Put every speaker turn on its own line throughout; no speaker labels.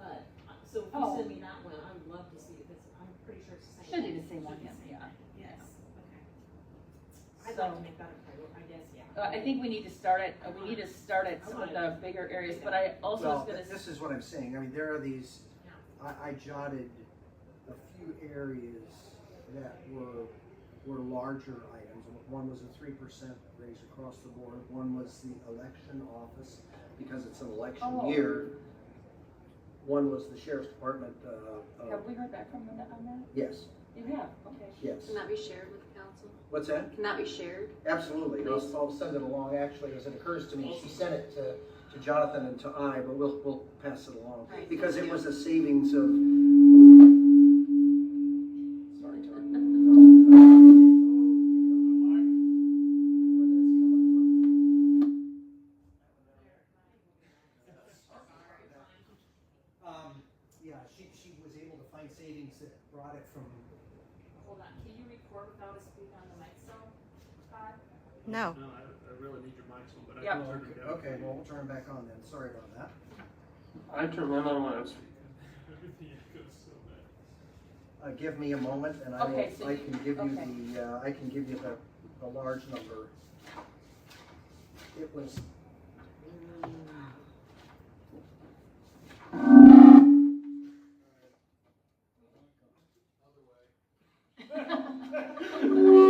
uh, if you
Oh.
send me that one, I'd love to see it, because I'm pretty sure it's the same.
Should be
thing.
the same one,
Should be the
yeah,
same thing. Yes, okay. I'd like
So-
to make that a priority, I guess, yeah.
Uh, I think we need to start at, uh, we need to start at some of the bigger areas, but I also was
Well,
gonna,
th- this is what I'm saying, I mean, there are these, I, I jotted a few areas that were, were larger items. One was a three percent raise across the board, one was the election office, because it's an election
Oh.
year. One was the sheriff's department, uh,
s-
uh,
have we heard back from them on that?
yes,
You have, okay.
yes.
Can that be shared with the council?
What's that?
Can that be shared?
Absolutely, I'll, I'll send it along, actually, as it occurs to me, she sent it to, to Jonathan and to I, but we'll, we'll pass it along.
Right,
Because
thank
it
you.
was a savings of. Sorry, Tara.
Um, yeah, she, she was able to find savings that brought it from,
Hold on, can you record without us being on the mic, so, Todd?
No.
No, I, I really need your mics on, but I
Yeah.
can turn
Okay,
them down.
okay, well, we'll turn it back on then, sorry about that.
I turned mine on when I was
Everything echoes so bad.
Uh, give me a moment and I will,
Okay, so
I
you-
can give
okay.
you the, uh, I can give you the, the large number. It was.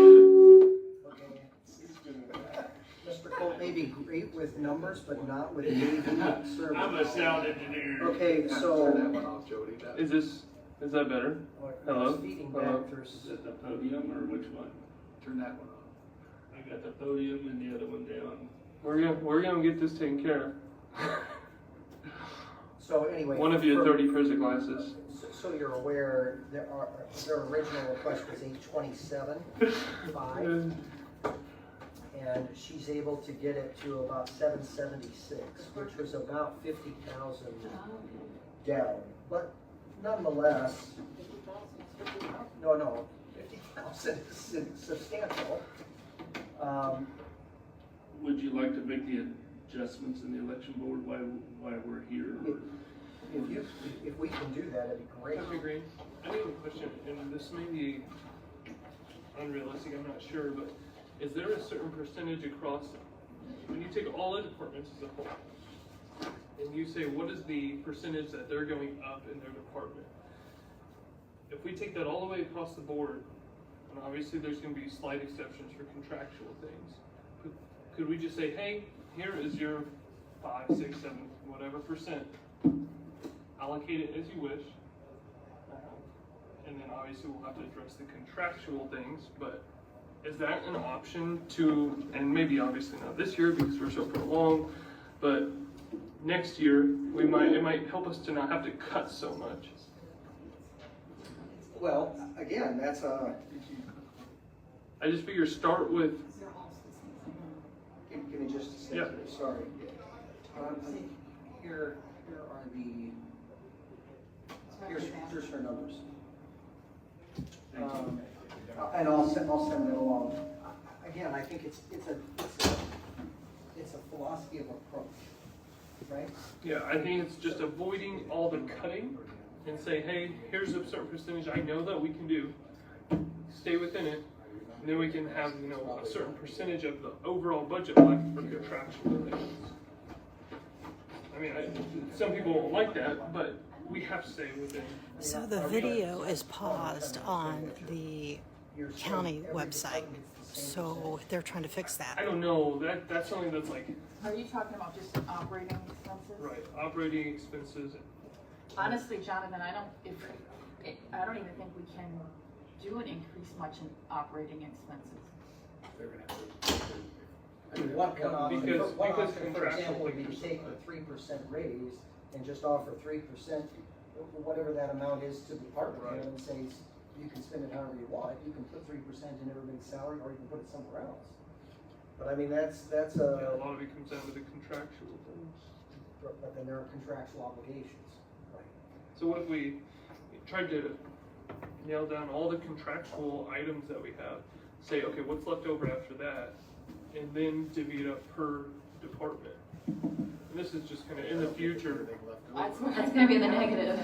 Okay, Mr. Colt may be great with numbers, but not with Navy service.
I'm a sound engineer.
Okay, so.
one off, Jody. That-
Is this is that better? Hello?
Feeding
Hello?
back through.
Is it the podium or which one?
Turn that one off.
I got the podium and the other one down.
We're gonna we're gonna get this taken care
So anyway.
of. One of you
for-
had thirty pairs of glasses.
So- So you're aware, there are, their original request was eight twenty-seven, five, and she's able to get it to about seven seventy-six, which was about fifty thousand down. But nonetheless, no, no, fifty thousand is substantial. Um,
Would you like to make the adjustments in the election board while, while we're here?
if you, if we can do that, it'd be great.
That'd be great. I have a question, and this may be unrealistic, I'm not sure, but is there a certain percentage across, when you take all the departments as a whole, and you say, what is the percentage that they're going up in their department? If we take that all the way across the board, and obviously there's gonna be slight exceptions for contractual things, could- could we just say, hey, here is your five, six, seven, whatever percent, allocate it as you wish, um, And then obviously we'll have to address the contractual things, but is that an option to, and maybe obviously not this year because we're so far along, but next year, we might, it might help us to not have to cut so much.
Well, again, that's a,
I just figure start with,
Give, give me just a second, sorry. Um, I think here, here are the, here's, here's her numbers. Um, And I'll send, I'll send it along. I- I- Again, I think it's, it's a, it's a, it's a philosophy of approach, right?
yeah, I think it's just avoiding all the cutting and say, hey, here's a certain percentage I know that we can do. Stay within it, and then we can have, you know, a certain percentage of the overall budget left for contractual things. I mean, I, some people won't like that, but we have to stay within.
So the video is paused on the
Here's-
county
every
website.
department gets the same
So they're trying to fix
I
that.
don't know, that, that's something that's like,
Are you talking about just operating expenses?
right, operating expenses,
Honestly, Jonathan, I don't, if, I don't even think we can do an increase much in operating expenses.
I mean, one, one option,
Because-
one
because
option, for
contractual
example, would be to
things-
take the three percent raise and just offer three percent, whatever that amount is to the department head and say, you can spend it however you want, you can put three percent in everybody's salary, or you can put it somewhere else. But I mean, that's, that's
yeah, a
a,
lot of it comes down to the contractual things.
but then there are contractual obligations, right?
So what if we tried to nail down all the contractual items that we have, say, okay, what's left over after that, and then divvy it up per department? And this is just kind of in the future.
That's, that's gonna be the negative.